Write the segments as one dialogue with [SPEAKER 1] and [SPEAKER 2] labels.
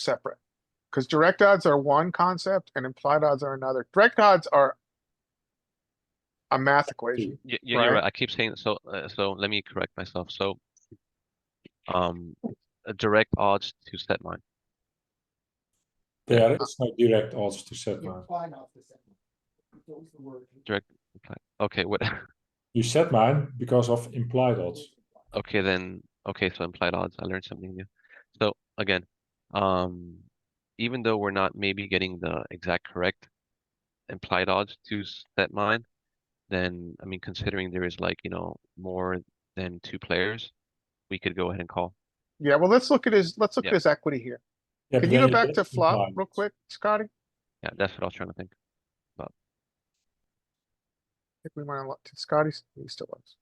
[SPEAKER 1] separate. Cause direct odds are one concept and implied odds are another. Direct odds are a math equation.
[SPEAKER 2] Y- y- you're
[SPEAKER 1] right?
[SPEAKER 2] right. I keep saying so. Uh, so let me correct myself. So, um, a direct odds to set mine.
[SPEAKER 3] There is no direct odds to set mine.
[SPEAKER 4] Imply not the second. Those the word.
[SPEAKER 2] Okay, what?
[SPEAKER 3] You set mine because of implied odds.
[SPEAKER 2] Okay, then. Okay, so implied odds. I learned something new. So again, um, even though we're not maybe getting the exact correct implied odds to set mine, then I mean, considering there is like you know more than two players, we could go ahead and call.
[SPEAKER 1] Yeah, well, let's look at his, let's look at
[SPEAKER 2] Yeah.
[SPEAKER 1] his equity here.
[SPEAKER 3] Yeah,
[SPEAKER 1] Can
[SPEAKER 3] but
[SPEAKER 1] you
[SPEAKER 3] then
[SPEAKER 1] go back
[SPEAKER 3] get
[SPEAKER 1] to flop
[SPEAKER 3] implied.
[SPEAKER 1] real quick, Scotty?
[SPEAKER 2] Yeah, that's what I was trying to think.
[SPEAKER 1] If we wanna look to Scotty's, he still was.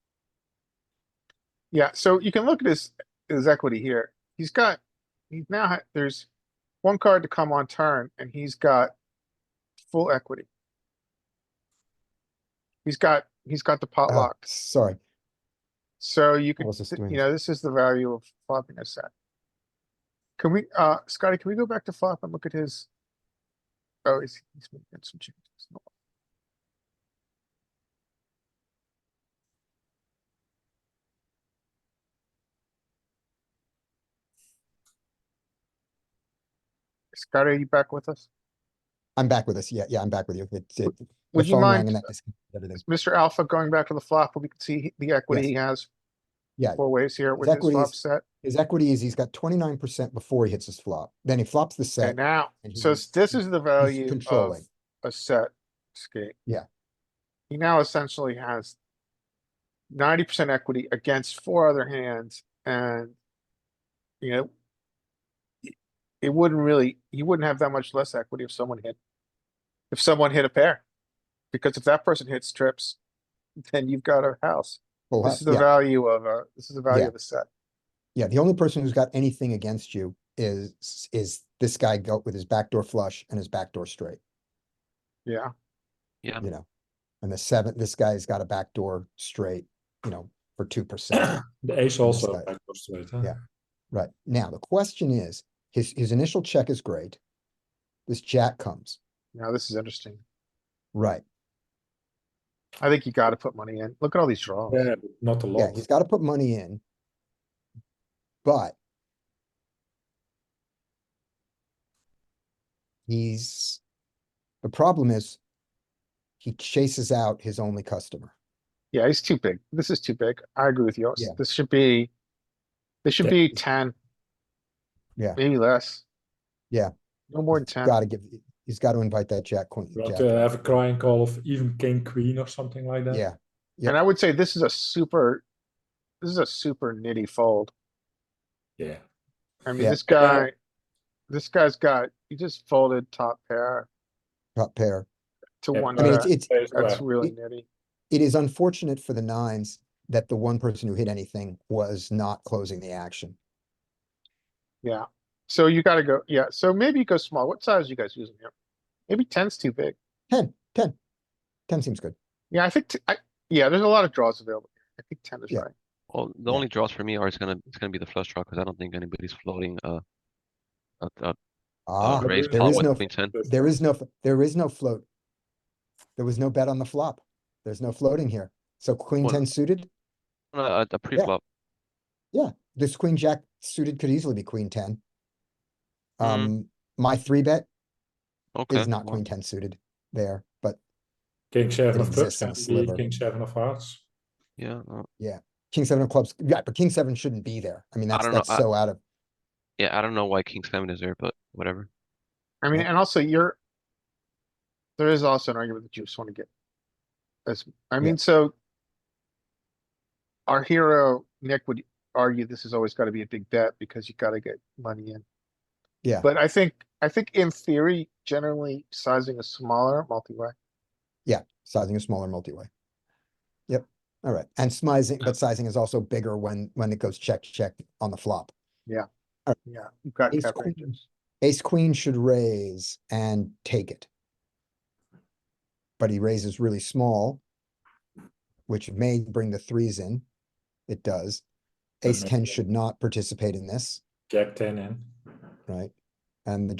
[SPEAKER 1] Yeah, so you can look at his, his equity here. He's got, he's now, ha- there's one card to come on turn and he's got full equity. He's got, he's got the pot
[SPEAKER 5] Ah,
[SPEAKER 1] locked.
[SPEAKER 5] Sorry,
[SPEAKER 1] So you
[SPEAKER 5] I
[SPEAKER 1] could,
[SPEAKER 5] was just
[SPEAKER 1] th-
[SPEAKER 5] doing
[SPEAKER 1] you
[SPEAKER 5] this.
[SPEAKER 1] know, this is the value of flopping a set. Can we, uh, Scotty, can we go back to flop and look at his? Oh, he's, he's making some changes. No. Scotty, are you back with us?
[SPEAKER 5] I'm back with us. Yeah, yeah, I'm back with you. It's it. the
[SPEAKER 1] Would you
[SPEAKER 5] phone rang
[SPEAKER 1] mind-
[SPEAKER 5] and that disconnected Everything.
[SPEAKER 1] Mr. Alpha going back to the flop, we can see he- the equity
[SPEAKER 5] Yes.
[SPEAKER 1] he has
[SPEAKER 5] Yeah,
[SPEAKER 1] four ways here with
[SPEAKER 5] His
[SPEAKER 1] his
[SPEAKER 5] equity
[SPEAKER 1] flop
[SPEAKER 5] is-
[SPEAKER 1] set.
[SPEAKER 5] his equity is he's got twenty-nine percent before he hits his flop. Then he flops the
[SPEAKER 1] And oh,
[SPEAKER 5] set.
[SPEAKER 1] now,
[SPEAKER 5] and
[SPEAKER 1] so
[SPEAKER 5] he's-
[SPEAKER 1] this is the
[SPEAKER 5] He's
[SPEAKER 1] value of
[SPEAKER 5] controlling.
[SPEAKER 1] a set skate.
[SPEAKER 5] Yeah.
[SPEAKER 1] He now essentially has ninety percent equity against four other hands and, you know, it- it wouldn't really, he wouldn't have that much less equity if someone hit, if someone hit a pair. Because if that person hits trips, then you've got a house.
[SPEAKER 5] Full
[SPEAKER 1] This
[SPEAKER 5] house,
[SPEAKER 1] is the
[SPEAKER 5] yeah.
[SPEAKER 1] value of a, this is the value
[SPEAKER 5] Yeah.
[SPEAKER 1] of a set.
[SPEAKER 5] Yeah, the only person who's got anything against you is, is this guy go with his backdoor flush and his backdoor straight,
[SPEAKER 1] Yeah,
[SPEAKER 2] Yeah.
[SPEAKER 5] you know? And the seven, this guy's got a backdoor straight, you know, for two percent.
[SPEAKER 3] The ace also
[SPEAKER 5] Understood.
[SPEAKER 3] backdoor straight, huh?
[SPEAKER 5] Yeah. Right, now, the question is, his, his initial check is great. This jack comes,
[SPEAKER 1] now this is interesting.
[SPEAKER 5] right?
[SPEAKER 1] I think you gotta put money in. Look at all these draws.
[SPEAKER 3] Yeah, but not a
[SPEAKER 5] Yeah,
[SPEAKER 3] lot.
[SPEAKER 5] he's gotta put money in. But. He's, the problem is. He chases out his only customer.
[SPEAKER 1] Yeah, he's too big. This is too big. I agree with you.
[SPEAKER 5] Yeah.
[SPEAKER 1] This should be, this should
[SPEAKER 3] Yeah.
[SPEAKER 1] be ten.
[SPEAKER 5] Yeah.
[SPEAKER 1] Maybe less.
[SPEAKER 5] Yeah.
[SPEAKER 1] No more than ten.
[SPEAKER 5] Gotta give, he's gotta invite that jack queen.
[SPEAKER 3] You want
[SPEAKER 5] jack-
[SPEAKER 3] to have a crying call of even king queen or something like that.
[SPEAKER 5] Yeah,
[SPEAKER 1] And I would say this is a super, this is a super nitty fold.
[SPEAKER 3] Yeah.
[SPEAKER 1] I mean,
[SPEAKER 5] Yeah.
[SPEAKER 1] this guy, this guy's got, he just folded top pair
[SPEAKER 5] top pair.
[SPEAKER 1] to
[SPEAKER 3] Yeah,
[SPEAKER 1] one
[SPEAKER 5] I mean,
[SPEAKER 1] bet.
[SPEAKER 5] it's, it's,
[SPEAKER 3] Ace
[SPEAKER 1] That's
[SPEAKER 3] square.
[SPEAKER 1] really
[SPEAKER 5] It-
[SPEAKER 1] nitty.
[SPEAKER 5] it is unfortunate for the nines that the one person who hit anything was not closing the action.
[SPEAKER 1] Yeah. So you gotta go, yeah. So maybe you go small. What size you guys using here? Maybe ten's too big.
[SPEAKER 5] Ten, ten. Ten seems good.
[SPEAKER 1] Yeah, I think, t- I, yeah, there's a lot of draws available. I think ten is
[SPEAKER 5] Yeah.
[SPEAKER 1] right.
[SPEAKER 2] Well, the
[SPEAKER 5] Yeah.
[SPEAKER 2] only draws for me are it's gonna it's gonna be the flush draw because I don't think anybody's floating a a, a,
[SPEAKER 5] Ah,
[SPEAKER 2] a
[SPEAKER 3] there
[SPEAKER 2] raise
[SPEAKER 3] is- there
[SPEAKER 2] pot
[SPEAKER 5] is
[SPEAKER 2] with
[SPEAKER 5] no-
[SPEAKER 2] queen ten.
[SPEAKER 5] There is no, f- there is no float. There was no bet on the flop. There's no floating here. So queen
[SPEAKER 2] Well-
[SPEAKER 5] ten suited,
[SPEAKER 2] No, Uh, A, a pre-flop.
[SPEAKER 5] this queen jack suited could easily be queen ten. Um, my three bet
[SPEAKER 2] Mm. Okay.
[SPEAKER 5] is not
[SPEAKER 2] well,
[SPEAKER 5] queen ten suited there, but
[SPEAKER 3] King seven
[SPEAKER 5] It
[SPEAKER 3] of clubs
[SPEAKER 5] exists in
[SPEAKER 3] can
[SPEAKER 5] a
[SPEAKER 3] be
[SPEAKER 5] sliver.
[SPEAKER 3] king seven of hearts.
[SPEAKER 2] Yeah. uh,
[SPEAKER 5] king seven of clubs, yeah, but king seven shouldn't be there. I mean, that's,
[SPEAKER 2] don't know,
[SPEAKER 5] that's
[SPEAKER 2] I-
[SPEAKER 5] so out of,
[SPEAKER 2] Yeah. I don't know why king seven is there, but whatever.
[SPEAKER 1] I mean,
[SPEAKER 5] Yeah.
[SPEAKER 1] and also you're. There is also an argument that you just wanna get. As, I
[SPEAKER 5] Yeah.
[SPEAKER 1] mean, so. Our hero, Nick would argue this has always gotta be a big bet because you gotta get money in.
[SPEAKER 5] Yeah.
[SPEAKER 1] But I think, I think in theory, generally sizing a smaller multi-way.
[SPEAKER 5] yeah, sizing is smaller multi-way. Yep, all right. And smizing, but sizing is also bigger when, when it goes check, check on the flop.
[SPEAKER 1] Yeah, you've got
[SPEAKER 5] Ace
[SPEAKER 1] cap
[SPEAKER 5] queen.
[SPEAKER 1] ranges.
[SPEAKER 5] Ace queen should raise and take it. But he raises really small. Which may bring the threes in. It does. Ace
[SPEAKER 3] Mhm.
[SPEAKER 5] ten should not participate in this,
[SPEAKER 3] Jack ten in.
[SPEAKER 5] right? And the